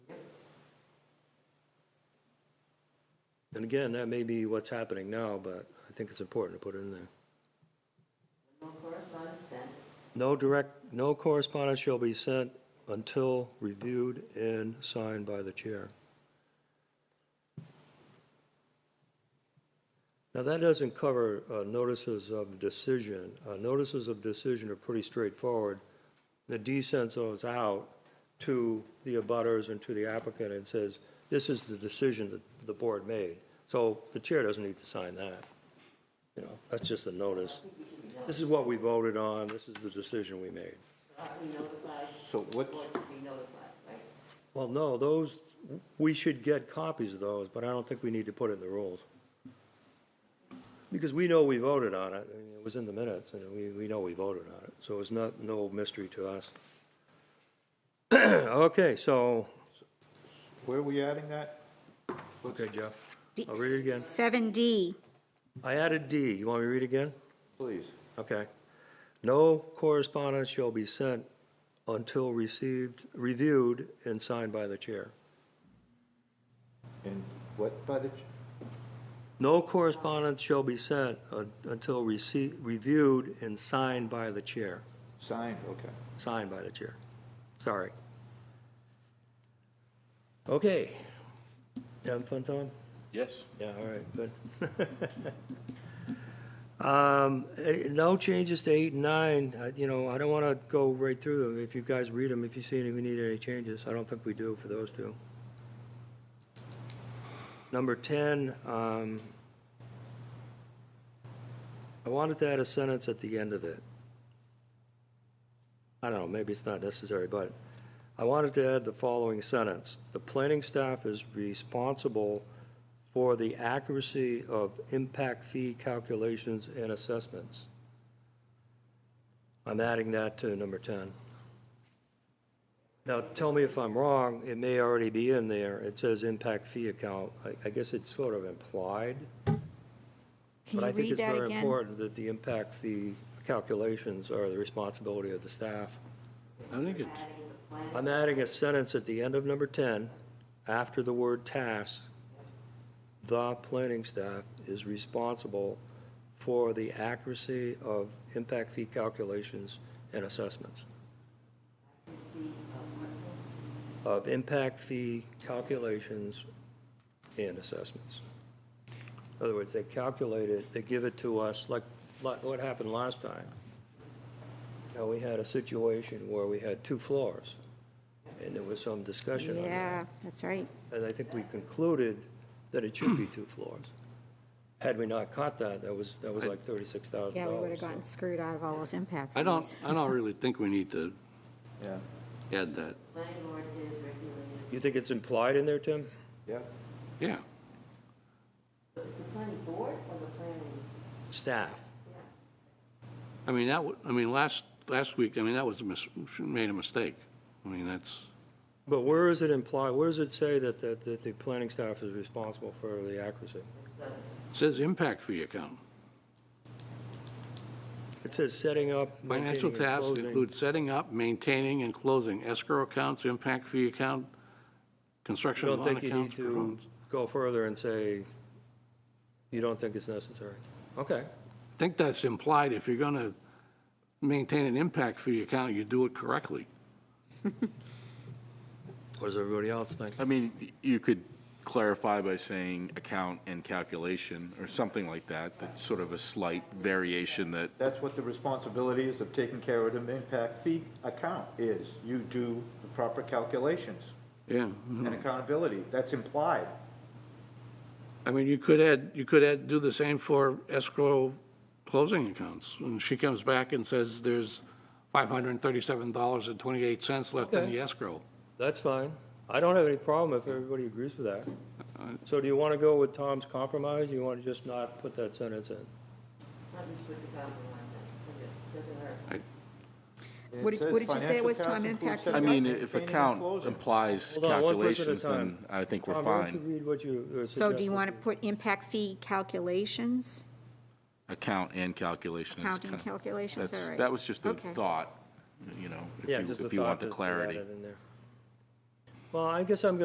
And again, that may be what's happening now, but I think it's important to put it in there. No correspondence sent. No direct, no correspondence shall be sent until reviewed and signed by the chair. Now, that doesn't cover uh, notices of decision. Uh, Notices of decision are pretty straightforward. The D sends those out to the abutters and to the applicant and says, this is the decision that the board made. So the chair doesn't need to sign that. You know, that's just a notice. This is what we voted on, this is the decision we made. So are we notified? So what- Or to be notified, right? Well, no, those, we should get copies of those, but I don't think we need to put it in the rules. Because we know we voted on it, I mean, it was in the minutes, and we, we know we voted on it, so it's not, no mystery to us. Okay, so, Where are we adding that? okay, Jeff, I'll read it again. Seven D, I added D, you want me to read again? Please. Okay. No correspondence shall be sent until received, reviewed, and signed by the chair. And what by the, ch- No correspondence shall be sent uh, until rece- reviewed and signed by the chair, signed, okay. signed by the chair. Sorry. Okay. You Having fun, Tom? Yes. Yeah, all right, good. Um, eh, No changes to eight and nine, I- you know, I don't want to go right through them. If you guys read them, if you see any, we need any changes, I don't think we do for those two. Number 10, um, I wanted to add a sentence at the end of it. I don't know, maybe it's not necessary, but I wanted to add the following sentence. The planning staff is responsible for the accuracy of impact fee calculations and assessments. I'm adding that to number 10. Now, tell me if I'm wrong, it may already be in there. It says impact fee account. I- I guess it's sort of implied. can you But read I think that it's very again? important that the impact fee calculations are the responsibility of the staff. I think Adding it, the plan, I'm adding a sentence at the end of number 10, after the word task. The planning staff is responsible for the accuracy of impact fee calculations and assessments. receipt of what? Of impact fee calculations and assessments. In other words, they calculate it, they give it to us, like, like what happened last time. Now, we had a situation where we had two floors, and there was some discussion on that. Yeah, that's right. And I think we concluded that it should be two floors. Had we not caught that, that was, that was like thirty-six thousand Yeah, we would have dollars. gotten screwed out of all those impact fees. I don't, I don't really think we need to Yeah, add that. landlord is regulated, You think it's implied in there, Tim? yeah. Yeah. So it's the planning board or the planning? Staff. I mean, that, wa- I mean, last, last week, I mean, that was a mis, made a mistake. I mean, that's, But where is it implied, where does it say that, that, that the planning staff is responsible for the accuracy? it says impact fee account. It says setting up, Financial maintaining, and tasks closing. include setting up, maintaining, and closing escrow accounts, impact fee account, You construction don't loan think you need accounts. to performance. go further and say, you don't think it's necessary? Okay, I think that's implied, if you're gonna maintain an impact fee account, you do it correctly. what does everybody else think? I mean, you could clarify by saying account and calculation, or something like that, that's sort of a slight variation that, That's what the responsibility is of taking care of the impact fee account is. You do the proper calculations Yeah. and accountability. That's implied. I mean, you could add, you could add, do the same for escrow closing accounts. When she comes back and says there's $537.28 left in Okay. the escrow. That's fine. I don't have any problem if everybody agrees with that. Uh, So do you want to go with Tom's compromise? You want to just not put that sentence in? Not just with the compromise, it doesn't hurt. It What did- says what did you say financial it was, tasks Tom, include impact setting I up, mean, maintaining, if and account closing. implies Hold on, one person at a calculations, then time. I think we're Tom, why don't fine. you read what you uh, So do you suggested? want to put impact fee calculations, Account and calculation is counting kind of, calculations, all that's, right? that was just the Okay. thought, you know, Yeah, if just you, the if you thought want the just to add clarity. it in there. Well, I guess I'm going